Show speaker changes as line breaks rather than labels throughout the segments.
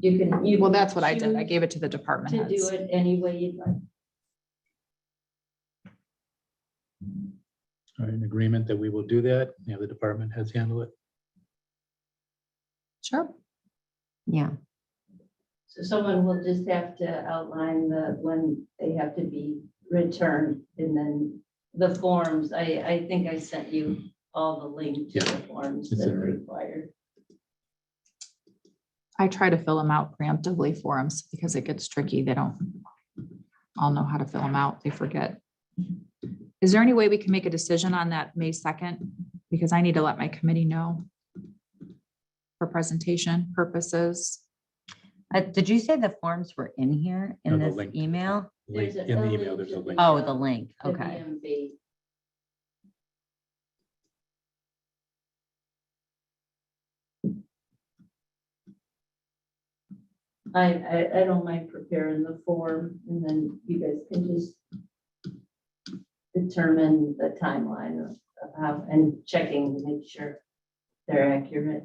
You can. you
Well,
can
that's what I did. I
choose
gave it to the department
To do
heads.
it any way you'd like.
Are in agreement that we will do that, you know, the department has handled it.
Sure.
Yeah,
So someone will just have to outline the, when they have to be returned and then the forms. I, I think I sent you all the link to the forms
It's
that are
alright.
required.
I try to fill them out preemptively for them because it gets tricky. They don't all know how to fill them out. They forget. Is there any way we can make a decision on that May second? Because I need to let my committee know for presentation purposes.
Uh, did you say the forms were in here in
No, the
this
link.
email?
Like,
There's a-
In
a
the email,
link
there's
to
a link.
the-
Oh, the link,
The
okay.
VMB. I, I, I don't mind preparing the form and then you guys can just determine the timeline of of how, and checking to make sure they're accurate.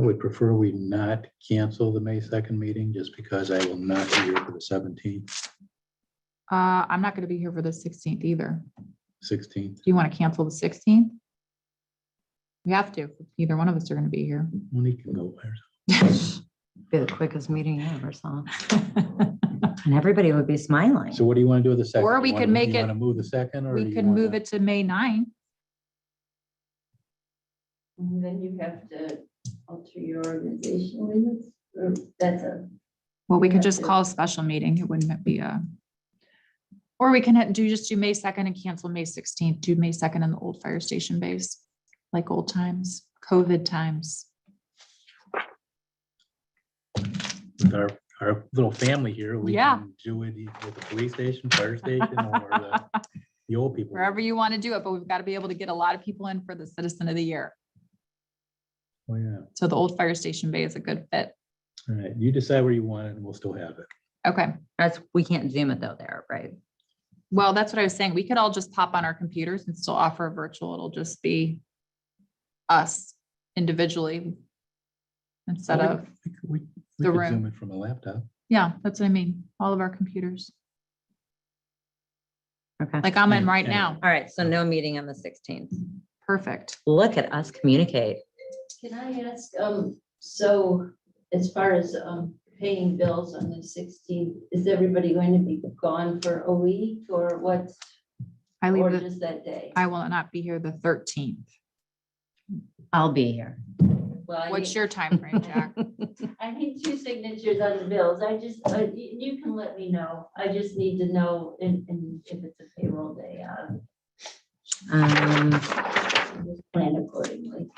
I would prefer we not cancel the May second meeting just because I will not be here for the seventeenth,
Uh, I'm not going to be here for the sixteenth either.
sixteenth.
Do you want to cancel the sixteenth? We have to. Either one of us are going to be here.
Monique can go there.
Be the quickest meeting I ever saw. And everybody would be smiling.
So what do you want to do with the second?
Or we
You wanna-
could make
you
it-
Want to move the second or?
We could move it to May 9th.
And then you have to alter your organization limits, or that's a
Well, we could just
Effective.
call a special meeting. It wouldn't be a. Or we can ha- do, just do May second and cancel May sixteenth, do May second in the old fire station base, like old times, COVID times.
With Our, our little family here. we
Yeah.
can Do it e- with the police station, fire station, or the, the old people.
Wherever you want to do it, but we've got to be able to get a lot of people in for the citizen of the year.
Oh, yeah.
So the old fire station bay is a good fit.
All right. You decide where you want it and we'll still have it.
Okay.
That's, we can't zoom it though there, right?
Well, that's what I was saying. We could all just pop on our computers and still offer a virtual. It'll just be us individually instead
Well,
of,
We could- we- we
The
could
room.
Zoom it from a laptop.
yeah, that's what I mean. All of our computers,
Okay.
like I'm in
Mm,
right
yeah.
now.
All right, so no meeting on the sixteenth.
Perfect.
Look at us communicate.
Can I ask, um, so as far as, um, paying bills on the sixteenth, is everybody going to be gone for a week or what?
I leave,
Or
the-
just that day?
I will not be here the thirteenth.
I'll be here.
Well, I
What's
need,
your time frame, Jack?
I need two signatures on the bills. I just, uh, y- you, can let me know. I just need to know in, in, if it's a payroll day, uh,
Um,
just plan accordingly.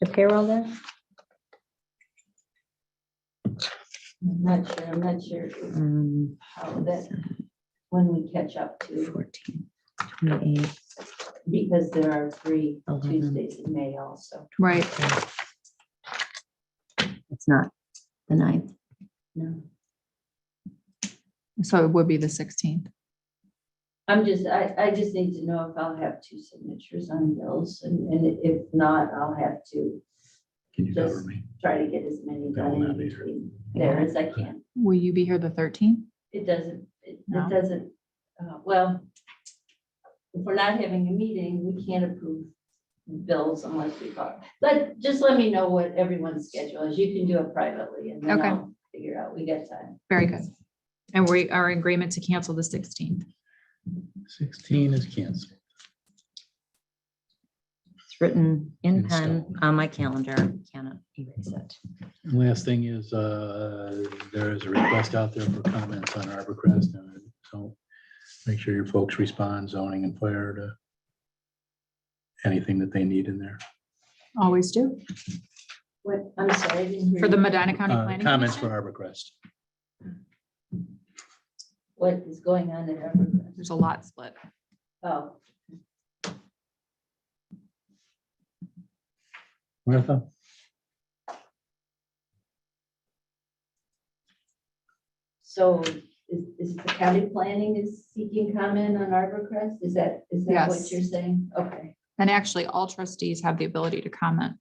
the payroll there?
I'm not sure, I'm not sure
Um,
how that, when we catch up to,
fourteen, twenty-eight.
because there are three
Eleven.
Tuesdays in May also.
Right,
It's not the ninth.
No.
so it would be the sixteenth.
I'm just, I, I just need to know if I'll have two signatures on bills, and, and if not, I'll have to
Can you cover
Yes.
me?
try to get as many
That will
done in
not be here.
between there as I can.
Will you be here the thirteenth?
It doesn't, it
No.
it doesn't, uh, well, if we're not having a meeting, we can't approve bills unless we talk. But just let me know what everyone's schedule is. You can do it privately, and then
Okay.
I'll figure out, we got time.
Very good. And we are in agreement to cancel the sixteenth.
Sixteen is canceled.
It's written in
And so-
pen on my calendar. Cannot erase it.
And Last thing is, uh, there is a request out there for comments on Arborcrest. and So make sure your folks respond zoning and fire to anything that they need in there.
Always do.
What, I'm sorry. I didn't hear
For the
you.
Medina County
Uh,
Planning.
Comments for
Commission,
Arborcrest.
What is going on at Evergreen?
There's a lot split.
Oh.
Martha?
So is, is the county planning is seeking comment on Arborcrest? Is that, is that what
Yes.
you're saying? Okay,
And actually, all trustees have the ability to comment.